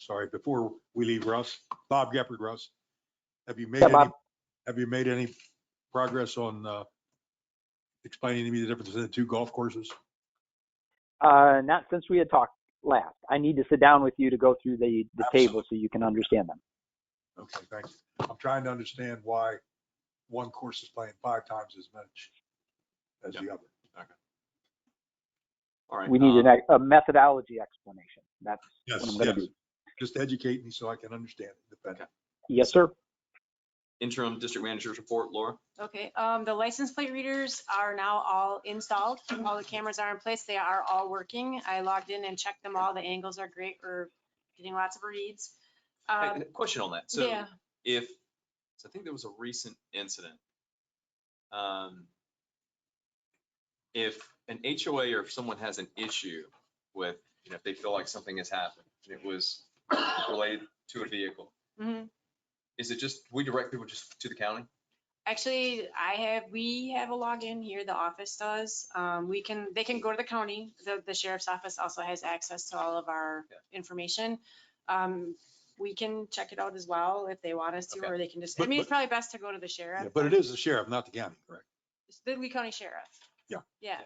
sorry, before we leave Russ, Bob Gepard, Russ, have you made Yeah, any, Bob. have you made any progress on uh, explaining to me the difference in the two golf courses? Uh, not since we had talked last. I need to sit down with you to go through the, the table so you can understand them. Okay, thanks. I'm trying to understand why one course is playing five times as much as the other. All right. We need um, an, a methodology explanation. That's Uh, Yes, what I'm gonna yes. do. Just educate me so I can understand it better. Yes, sir. Interim district manager's report, Laura. Okay, um, the license plate readers are now all installed. All the cameras are in place. They are all working. I logged in and checked them all. The angles are great. We're getting lots of reads. Hey, Um, and a Question on that. So yeah, if, so I think there was a recent incident. um, If an HOA or if someone has an issue with, you know, if they feel like something has happened and it was related to a vehicle, mhm. is it just, we direct people just to the county? actually, I have, we have a login here. The office does. Um, we can, they can go to the county. The, the sheriff's office also has access to all of our Yeah. information. Um, we can check it out as well if they want us to, Okay. or they can just, I But- mean, it's but- probably best to go to the sheriff. Yeah, But it is the sheriff, not the county, correct? It's The Lee County Sheriff. Yeah. Yeah.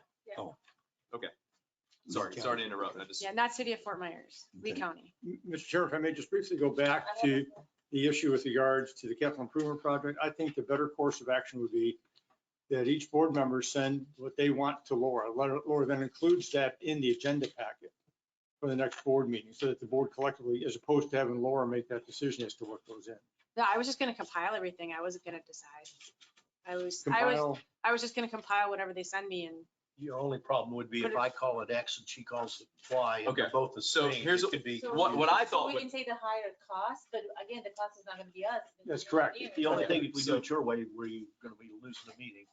Sorry, sorry to interrupt. I just, Yeah, not city of Fort Myers, Lee Okay. County. Mr. Chair, if I may just briefly go back to the issue with regards to the capital improvement project, I think the better course of action would be that each board member send what they want to Laura. Laura- Laura then includes that in the agenda packet for the next board meeting, so that the board collectively, as opposed to having Laura make that decision as to what goes in. No, I was just gonna compile everything. I wasn't gonna decide. I was, I was, Compile, I was just gonna compile whatever they send me and, Your only problem would be But if I call it X and she calls it Y and Okay, they're both the so same. here's it what- could be So- what, what I thought, We would- can say the higher cost, but again, the cost is not gonna be us. it's gonna That's be the correct. engineer. The only Okay. thing, if we do it your way, where you're gonna be losing the meeting.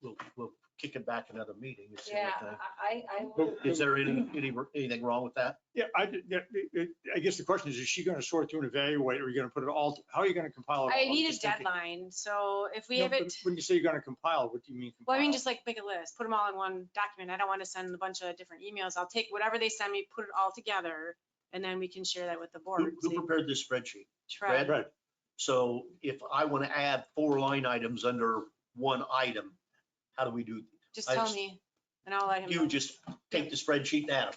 We'll, we'll kick it back another meeting. It's the only Yeah, I, I. I But- thing. Is there any, any, anything wrong with that? yeah, I, did- yeah, it- it- I guess the question is, is she going to sort through and evaluate, or are you going to put it all, how are you going to compile it? I all? need a Oh, Just thinking- deadline, so if we No, have but it, When you say you're going to compile, what do you mean? well, I mean, compile? just like make a list, put them all in one document. I don't wanna send a bunch of different emails. I'll take whatever they send me, put it all together, and then we can share that with the Who board. who prepared this spreadsheet? Try, Brad? So if I want to add four line items under one item, how do we do? just I tell just- me, and I'll let him You know. just take the spreadsheet and add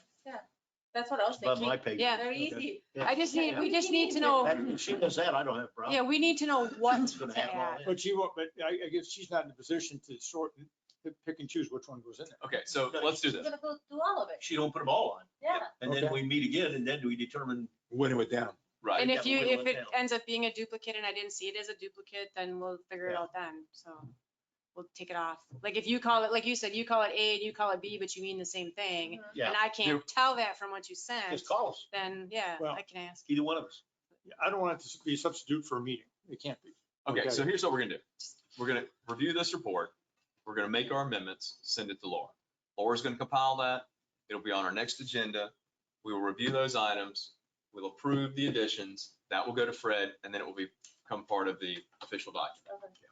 That's what I was them above my thinking. page. Yeah. Very Okay. easy. Yeah. I just need, we just need to know, That- If she does that, I don't have a problem. yeah, we need to know what It's gonna have to all add. that. But she won't, but I, I guess she's not in a position to sort, and to pick and choose which one goes in there. okay, so let's do She's this. gonna go through all of it. She don't put them all on. Yeah. And then we meet again and then we determine. When it went down. Right. And I if got you, whittle if it it down. ends up being a duplicate and I didn't see it as a duplicate, then we'll figure it Yeah. out then, so we'll take it off. Like if you call it, like you said, you call it A and you call it B, but you mean the same thing, Mhm. Yeah. and I can't tell that from what you sent, Just call us, then, yeah, Well- I can ask. either one of us. I don't want it to be a substitute for a meeting. It can't be. Okay, Okay. so here's what we're gonna do. We're gonna review this report. We're gonna make our amendments, send it to Laura. Laura's gonna compile that. It'll be on our next agenda. We will review those items. We'll approve the additions. That will go to Fred and then it will become part of the official document.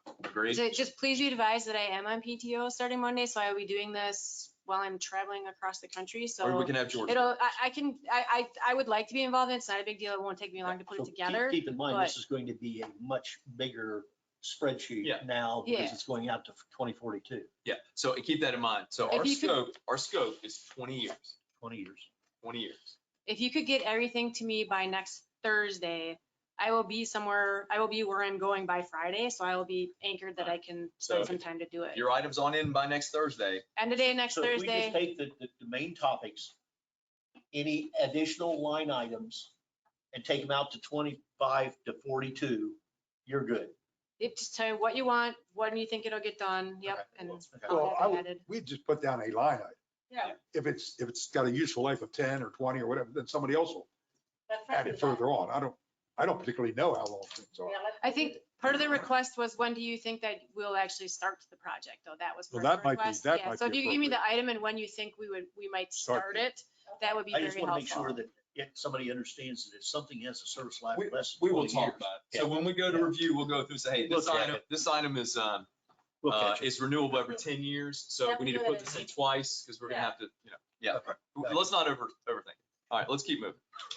Okay. Agreed? So Just please be advised that I am on PTO starting Monday, so I will be doing this while I'm traveling across the country, Or we so can have George. it'll, I, I can, I, I, I would like to be involved in it. It's not a big deal. It won't take me long to put So it keep- together. Keep in mind, this but- is going to be a much bigger spreadsheet Yeah. now because Yeah. it's going out to twenty forty-two, Yeah, so keep that in mind. So our If you could- scope, our scope is twenty years, twenty years. twenty years. if you could get everything to me by next Thursday, I will be somewhere, I will be where I'm going by Friday, so I will be anchored that I can So spend some time to do it. your item's on in by next Thursday. End of day next So if We Thursday. just take the, the, the main topics, any additional line items and take them out to twenty-five to forty-two, you're good. It- Just tell you what you want, when you think it'll get done, yep, Okay, and okay. I'll Well, I have it would- added. we just put down a line item. Yeah. If it's, if it's got a useful life of ten or twenty or whatever, then somebody else will let Fred add do it that. further on. I don't, I don't particularly know how long things are. Yeah, let I Fred do think it. part of the request was, when do you think that we'll actually start the project, though? That was Well, part that of the might be- request. that Yeah, might so if be you give me the item and when you think we would, we might Start start it, that would be I very just want to make sure helpful. that if somebody understands that if something has a service life We- less than We will 20 years. talk about it. So when we go to Yeah. review, we'll go through, say, hey, We'll this check item, it. this item is, um, We'll uh, catch it. is renewable every ten years, so we need to put this in twice, because we're gonna have to, you know, yeah. Okay. Let's not over, overthink. it. All right, let's keep moving.